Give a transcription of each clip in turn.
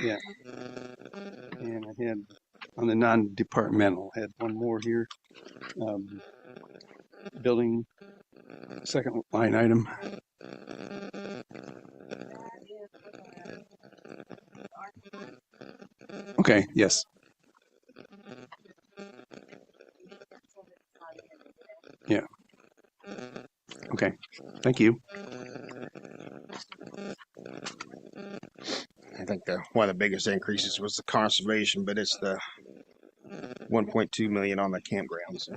Yeah, and I had on the non-departmental, had one more here. Um, building, second line item. Okay, yes. Yeah, okay. Thank you. I think the one of the biggest increases was the conservation, but it's the 1.2 million on the campgrounds.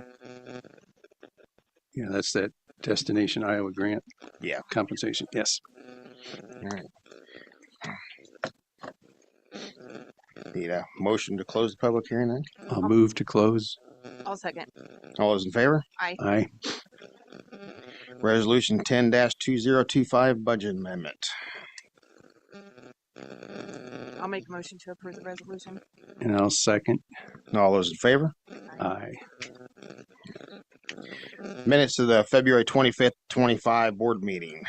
Yeah, that's that Destination Iowa grant Yeah. compensation. Yes. All right. Need a motion to close the public hearing then? I'll move to close. I'll second. All those in favor? Aye. Resolution 10 2025 budget amendment. I'll make a motion to approve the resolution. And I'll second. All those in favor? Aye. Minutes of the February 25th, 25 board meeting.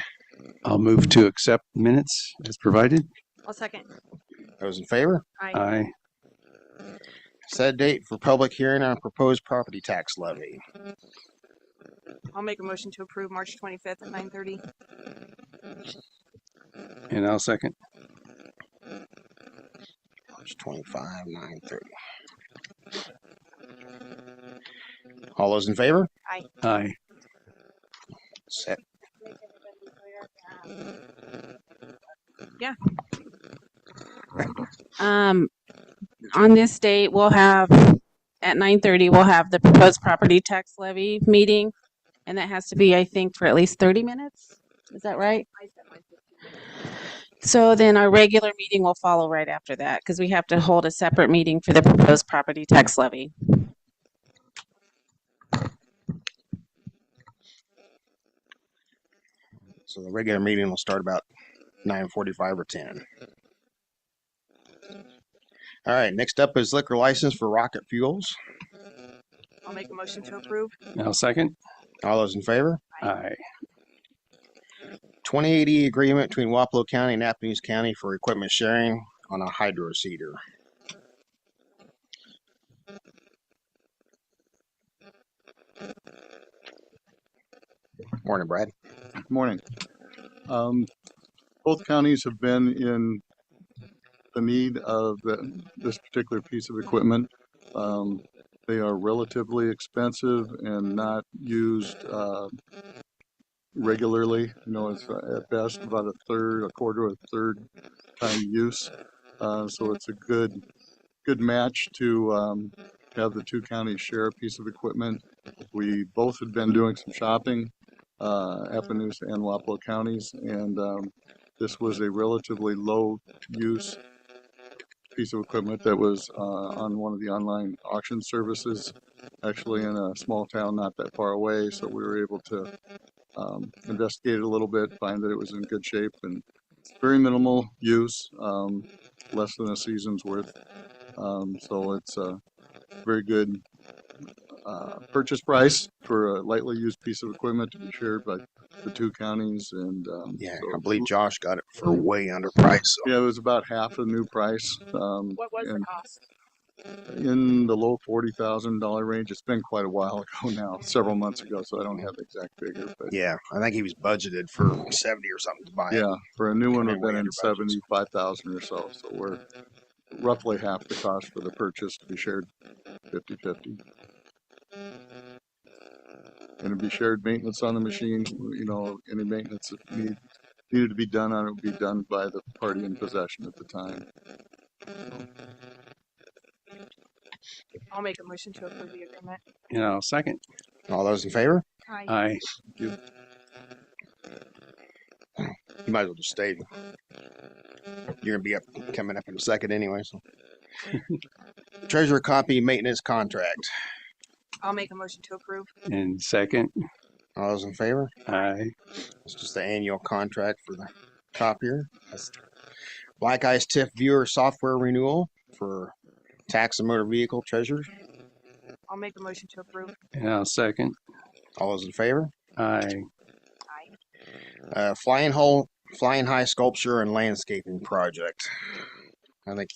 I'll move to accept minutes as provided. I'll second. Those in favor? Aye. Aye. Set date for public hearing on proposed property tax levy. I'll make a motion to approve March twenty-fifth at nine thirty. And I'll second. March 25, 9:30. All those in favor? Aye. Set. Um, on this date, we'll have, at nine thirty, we'll have the proposed property tax levy meeting. And that has to be, I think, for at least thirty minutes. Is that right? So then our regular meeting will follow right after that because we have to hold a separate meeting for the proposed property tax levy. So the regular meeting will start about 9:45 or 10. All right, next up is liquor license for Rocket Fuels. I'll make a motion to approve. And I'll second. All those in favor? Aye. 2080 agreement between Wapello County and Appanese County for equipment sharing on a hydro seeder. Morning, Brad. Morning. Um, both counties have been in the need of the, this particular piece of equipment. Um, they are relatively expensive and not used, uh, regularly. You know, it's uh, at best about a third, a quarter, a third time use. Uh, so it's a good, good match to, um, have the two counties share a piece of equipment. We both had been doing some shopping uh, Appaloosa and Wapello counties, and um, this was a relatively low-use piece of equipment that was uh, on one of the online auction services, actually in a small town not that far away, so we were able to um, investigate it a little bit, find that it was in good shape and very minimal use, um, less than a season's worth. Um, So it's a very good uh, purchase price for a lightly used piece of equipment to be shared by the two counties and. um, Yeah, so I believe Josh got it for way under price. yeah, it was about half the new price, um, What was the and cost? in the low forty thousand dollar range. It's been quite a while ago now, several months ago, so I don't have the exact figure, but Yeah, I think he was budgeted for 70 or something to buy it. yeah, for a new one, Way we've been under in budget. seventy-five thousand or so, so we're roughly half the cost for the purchase to be shared fifty-fifty. And it'd be shared maintenance on the machine, you know, any maintenance that need, needed to be done on it would be done by the party in possession at the time. I'll make a motion to approve the agreement. And I'll second. All those in favor? Aye. Aye. You might as well just stay. You're gonna be up, coming up in a second anyway, so. Treasurer copy maintenance contract. I'll make a motion to approve. And second. All those in favor? Aye. It's just the annual contract for the copier. That's Black Ice TIF viewer software renewal for tax and motor vehicle treasurer. I'll make a motion to approve. And I'll second. All those in favor? Aye. Aye. Uh, flying hole, flying high sculpture and landscaping project. I think